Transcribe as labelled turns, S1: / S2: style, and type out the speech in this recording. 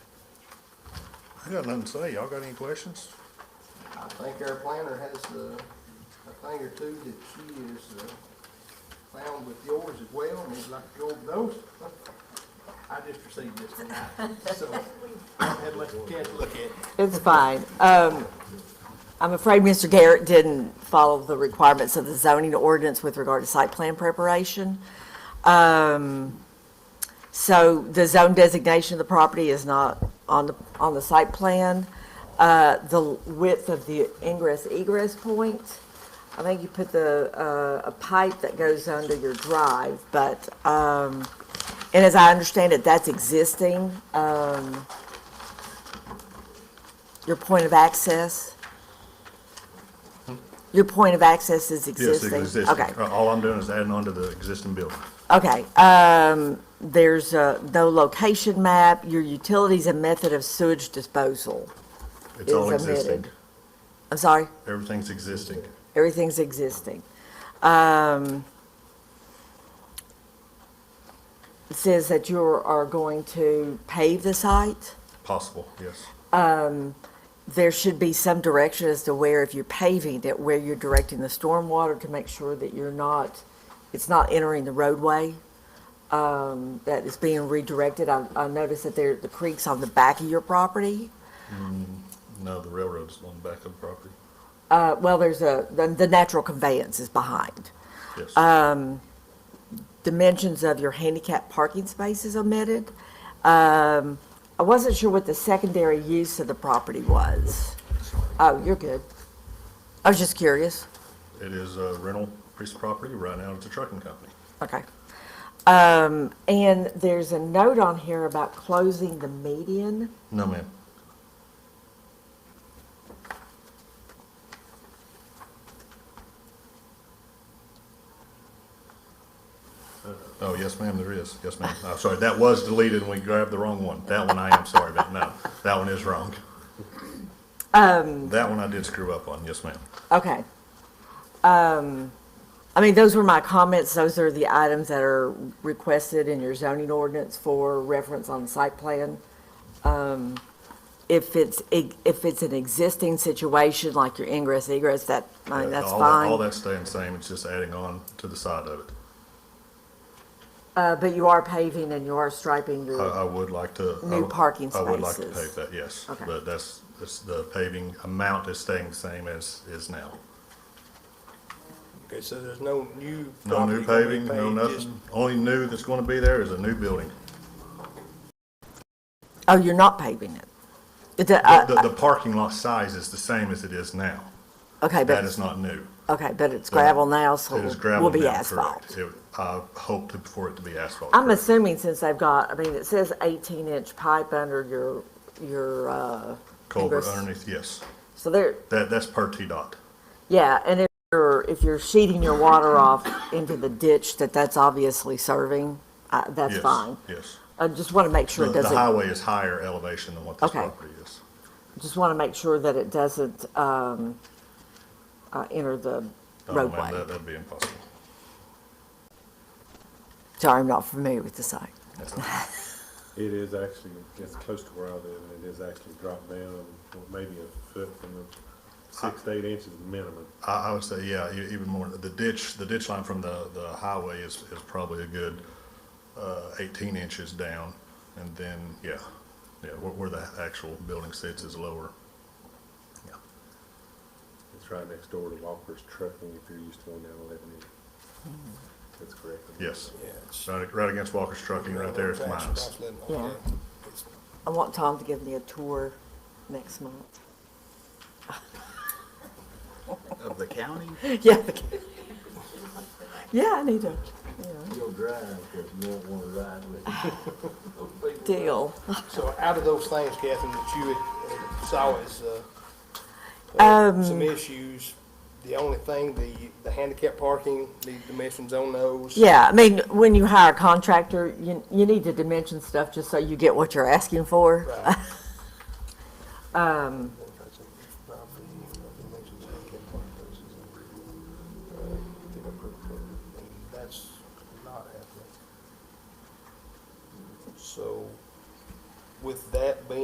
S1: I got nothing to say. Y'all got any questions?
S2: I think our planner has uh, a thing or two that she has uh, found with yours as well, and we'd like to go over those. I just received this tonight, so I had less than a chance to look at it.
S3: It's fine. Um, I'm afraid Mr. Garrett didn't follow the requirements of the zoning ordinance with regard to site plan preparation. Um, So the zone designation of the property is not on the, on the site plan. Uh, The width of the ingress egress point, I think you put the, uh, a pipe that goes under your drive, but, um, and as I understand it, that's existing. Um, your point of access? Your point of access is
S1: Hmm? Yes,
S3: existing?
S1: it's existing.
S3: Okay.
S1: Uh, All I'm doing is adding on to the existing building.
S3: Okay, um, there's, uh, no location map, your utilities and method of sewage disposal
S1: It's
S3: is
S1: all existing.
S3: omitted. I'm sorry,
S1: Everything's existing.
S3: everything's existing. Um, it says that you are going to pave the site.
S1: Possible, yes.
S3: There should be some direction as to where, if you're paving it, where you're directing the stormwater to make sure that you're not, it's not entering the roadway. um, that is being redirected. I, I noticed that there, the creek's on the back of your property.
S1: No, the railroad's on the back of the property.
S3: Uh, well, there's a, the, the natural conveyance is behind.
S1: Yes.
S3: Dimensions of your handicap parking space is omitted. Um, I wasn't sure what the secondary use of the property was. Oh, you're good. I was just curious.
S1: It is a rental piece of property. Right now, it's a trucking company.
S3: Okay. Um, and there's a note on here about closing the median.
S1: No, ma'am. Oh, yes, ma'am, there is. Yes, ma'am. I'm sorry, that was deleted and we grabbed the wrong one. That one I am sorry about. No, that one is wrong. Um. That one I did screw up on. Yes, ma'am.
S3: Okay. Um, I mean, those were my comments. Those are the items that are requested in your zoning ordinance for reference on the site plan. Um, If it's, if it's an existing situation, like your ingress egress, that, I mean, that's
S1: All that- All
S3: fine.
S1: that's staying the same. It's just adding on to the side of it.
S3: Uh, but you are paving and you are striping
S1: I,
S3: your,
S1: I would like to. I
S3: New
S1: would-
S3: parking
S1: I would like to
S3: spaces.
S1: pave that, yes.
S3: Okay.
S1: But that's, that's, the paving amount is staying the same as is now.
S2: Okay, so there's no new.
S1: No new
S2: property
S1: paving, no
S2: gonna be paved, just-
S1: nothing. Only new that's gonna be there is a new building.
S3: oh, you're not paving it. It, uh,
S1: The, the- the parking lot size is the same as it is now.
S3: Okay,
S1: That
S3: but,
S1: is not new.
S3: okay, but it's gravel now, so
S1: It is
S3: it will
S1: gravel
S3: be
S1: now, correct.
S3: asphalt.
S1: It, I hope to- for it to be asphalt.
S3: I'm
S1: correct.
S3: assuming since they've got, I mean, it says eighteen inch pipe under your, your, uh.
S1: Culvert
S3: ingress.
S1: underneath, yes.
S3: So there,
S1: That, that's per T-Dot.
S3: yeah, and if you're, if you're sheeting your water off into the ditch that that's obviously serving, uh, that's
S1: Yes,
S3: fine.
S1: Yes.
S3: I just wanna make sure
S1: The,
S3: it
S1: the
S3: doesn't,
S1: highway is higher elevation than what this
S3: Okay.
S1: property is.
S3: just wanna make sure that it doesn't, um, uh, enter the
S1: Oh, man,
S3: roadway.
S1: that- That'd be impossible.
S3: Sorry, I'm not familiar with the site.
S1: That's not-
S4: It is actually, it's close to where I live, and it is actually dropped down well, maybe a foot from the six to eight inches minimum.
S1: I, I would say, yeah, e- even more, the ditch, the ditch line from the, the highway is, is probably a good, uh, eighteen inches down. And then, yeah, yeah, where, where the actual building sits is lower. Yeah.
S4: It's right next door to Walker's Trucking, if you're used to going down eleven eight. That's correct.
S1: Yes.
S2: Yeah, it's-
S1: Right, right against Walker's Trucking, right there is mines.
S3: Yeah. I want Tom to give me a tour next month.
S5: Of the county?
S3: Yeah. Yeah, I need to, you
S6: You'll drive, because you won't want to ride with it.
S3: know, deal.
S2: So out of those things, Catherine, that you had, uh, saw as, uh, uh, some issues, the only thing, the, the handicap parking, the dimensions on those.
S3: Yeah, I mean, when you hire a contractor, you, you need to dimension stuff just so you get what you're asking for.
S2: Right. um, That's not happening. So with that being